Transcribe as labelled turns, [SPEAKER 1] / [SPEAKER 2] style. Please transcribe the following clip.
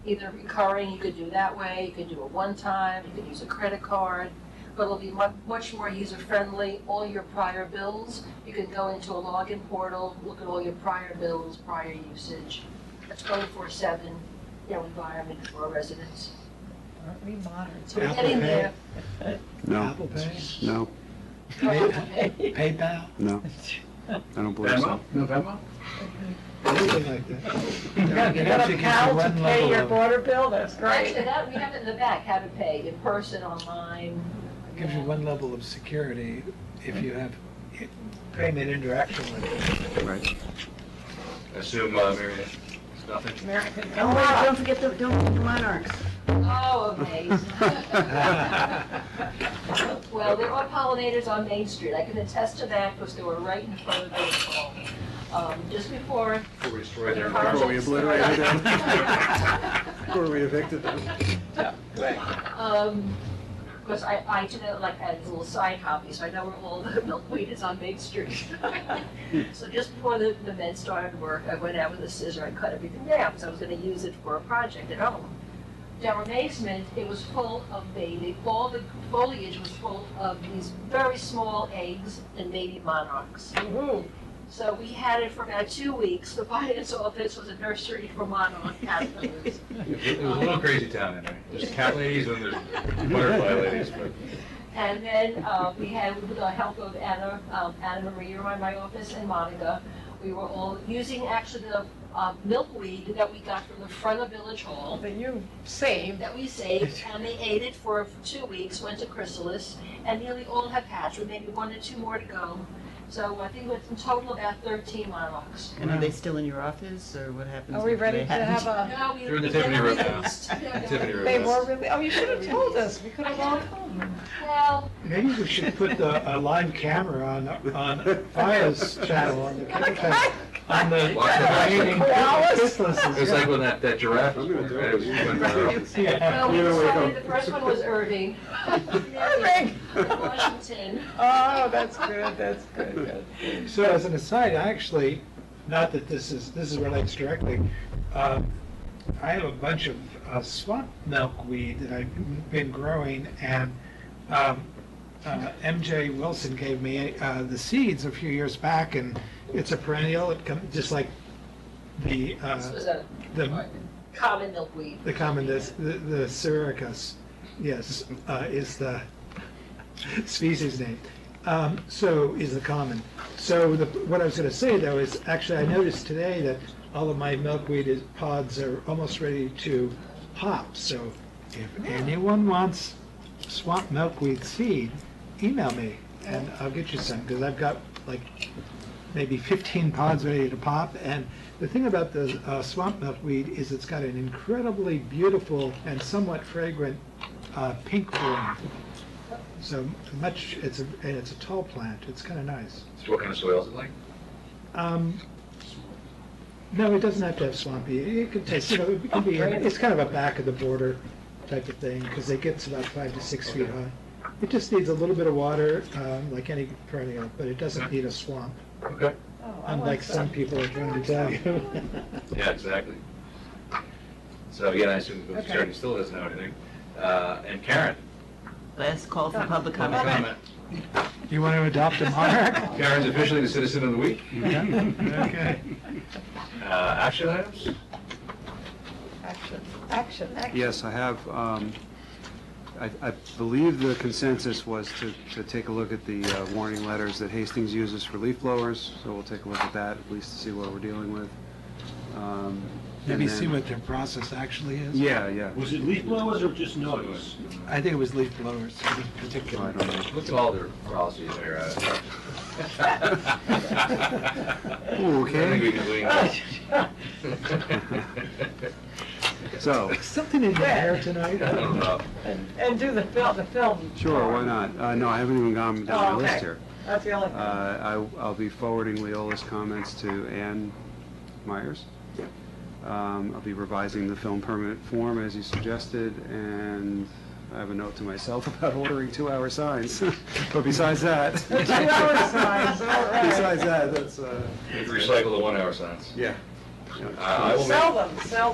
[SPEAKER 1] either recurring, you could do that way, you could do it one time, you could use a credit card, but it'll be mu- much more user-friendly. All your prior bills, you can go into a login portal, look at all your prior bills, prior usage, a twenty-four-seven, you know, environment for residents.
[SPEAKER 2] Aren't we modern?
[SPEAKER 1] So we're
[SPEAKER 3] Apple
[SPEAKER 1] getting
[SPEAKER 3] Pay.
[SPEAKER 1] there.
[SPEAKER 4] No,
[SPEAKER 3] Apple Pay?
[SPEAKER 4] no,
[SPEAKER 3] Pay- PayPal?
[SPEAKER 4] no, I don't believe so.
[SPEAKER 5] Venmo? No Venmo?
[SPEAKER 3] Anything like that.
[SPEAKER 2] You got you got a pal to pay your water bill, that's great.
[SPEAKER 1] Actually, that, we have it in the back, how to pay, in person, online.
[SPEAKER 3] Gives you one level of security if you have i- payment interaction with it.
[SPEAKER 4] Right.
[SPEAKER 5] Assume, uh, Mary, Ann, it's nothing.
[SPEAKER 2] American
[SPEAKER 6] Oh, wait, don't forget the, don't forget the monarchs.
[SPEAKER 1] Oh, amazing. Well, there are pollinators on Main Street, I can attest to that, because they were right in front of the hall. Um, Just before.
[SPEAKER 5] Before we destroy their.
[SPEAKER 4] Before we obliterated
[SPEAKER 1] Before
[SPEAKER 4] we evicted them.
[SPEAKER 1] Because Um, I, I did it like as a little side copy, so I know where all the milkweed is on Main Street. So just before the, the men started work, I went out with a scissor, I cut everything down, because I was gonna use it for a project at home. To our amazement, it was full of baby, all the foliage was full of these very small eggs and baby monarchs. So we had it for about two weeks, the finance office was a nursery for monarch caterpillars.
[SPEAKER 5] It was a little crazy town in there. There's cat ladies and there's butterfly ladies, but
[SPEAKER 1] And then uh, we had, with the help of Anna, um, Anna Maria in my office and Monica, we were all using actually the uh, milkweed that we got from the front of Village Hall
[SPEAKER 2] That you saved.
[SPEAKER 1] that we saved, and they ate it for two weeks, went to Chrysalis, and nearly all have hatched, with maybe one or two more to go. So I think it's in total about 13 monarchs.
[SPEAKER 6] And are they still in your office, or what happens?
[SPEAKER 2] Are we
[SPEAKER 6] if they
[SPEAKER 2] ready to
[SPEAKER 6] haven't?
[SPEAKER 2] have a,
[SPEAKER 1] No, we-
[SPEAKER 5] They're in the
[SPEAKER 1] we
[SPEAKER 5] Tiffany
[SPEAKER 1] never
[SPEAKER 5] room now.
[SPEAKER 1] released. No, no,
[SPEAKER 5] Tiffany room.
[SPEAKER 2] they were really, oh, you should have told us, we could have all come.
[SPEAKER 1] Well,
[SPEAKER 3] Maybe we should put the, a live camera on, on Fire's channel on the, on the.
[SPEAKER 5] Watch the-
[SPEAKER 3] Kiss
[SPEAKER 5] it was
[SPEAKER 3] lessons,
[SPEAKER 5] like when that, that giraffe.
[SPEAKER 4] I'm gonna do it.
[SPEAKER 5] right, it was when, uh,
[SPEAKER 3] yeah.
[SPEAKER 1] well, we
[SPEAKER 4] You know, we
[SPEAKER 1] decided
[SPEAKER 4] don't-
[SPEAKER 1] the first one was Irving.
[SPEAKER 2] Irving.
[SPEAKER 1] Washington.
[SPEAKER 2] Oh, that's good, that's good, good.
[SPEAKER 3] So as an aside, I actually, not that this is, this is relates directly, uh, I have a bunch of uh, swamp milkweed that I've been growing, and um, uh, MJ Wilson gave me uh, the seeds a few years back, and it's a perennial, it comes, just like the,
[SPEAKER 1] This was
[SPEAKER 3] uh,
[SPEAKER 1] a
[SPEAKER 3] the
[SPEAKER 1] common milkweed.
[SPEAKER 3] the common, the, the Syracuse, yes, uh, is the species name. Um, so is the common. So the, what I was gonna say though is, actually, I noticed today that all of my milkweed is, pods are almost ready to pop. So if anyone wants swamp milkweed seed, email me and I'll get you some, because I've got like maybe 15 pods ready to pop. And the thing about the uh, swamp milkweed is it's got an incredibly beautiful and somewhat fragrant uh, pink bloom. So much, it's a, and it's a tall plant. It's kind of nice.
[SPEAKER 5] what kind of soil is it like?
[SPEAKER 3] Um, no, it doesn't have to have swampy. It could taste, you know, it could be, it's kind of a back of the border type of thing because it gets about five to six feet high. It just needs a little bit of water, um, like any perennial, but it doesn't need a swamp.
[SPEAKER 5] Okay.
[SPEAKER 2] Oh, I
[SPEAKER 3] Unlike
[SPEAKER 2] want
[SPEAKER 3] some people are trying to tell you.
[SPEAKER 5] Yeah, exactly. So again, I assume the
[SPEAKER 2] Okay.
[SPEAKER 5] attorney still doesn't know anything. Uh, and Karen?
[SPEAKER 6] Last call for public
[SPEAKER 5] public
[SPEAKER 6] comment.
[SPEAKER 3] You want to adopt a monarch?
[SPEAKER 5] Karen's officially the citizen of the week.
[SPEAKER 3] Okay.
[SPEAKER 5] Uh, action items?
[SPEAKER 2] Action, action, action.
[SPEAKER 4] Yes, I have, um, I I believe the consensus was to, to take a look at the uh, warning letters that Hastings uses for leaf blowers, so we'll take a look at that, at least to see what we're dealing with. Um, and
[SPEAKER 3] Maybe see
[SPEAKER 4] then-
[SPEAKER 3] what their process actually is.
[SPEAKER 4] Yeah, yeah.
[SPEAKER 7] Was it leaf blowers or just notice?
[SPEAKER 3] I think it was leaf blowers in particular.
[SPEAKER 4] I don't know.
[SPEAKER 5] Look at all their policies there. uh.
[SPEAKER 4] Okay. So,
[SPEAKER 3] Something in the air tonight.
[SPEAKER 5] I don't know.
[SPEAKER 2] And, and do the film, the film.
[SPEAKER 4] sure, why not? Uh, No, I haven't even gone down
[SPEAKER 2] Oh,
[SPEAKER 4] my list
[SPEAKER 2] okay.
[SPEAKER 4] here.
[SPEAKER 2] That's the only thing.
[SPEAKER 4] Uh, I- I'll be forwarding Leola's comments to Ann Myers. Um, I'll be revising the film permit form as you suggested, and I have a note to myself about ordering two-hour signs. But besides that.
[SPEAKER 2] Two-hour signs, all right.
[SPEAKER 4] Besides that, that's, uh,
[SPEAKER 5] Recycle the one-hour signs.
[SPEAKER 4] yeah.
[SPEAKER 5] Uh, I will make-
[SPEAKER 2] Sell them, sell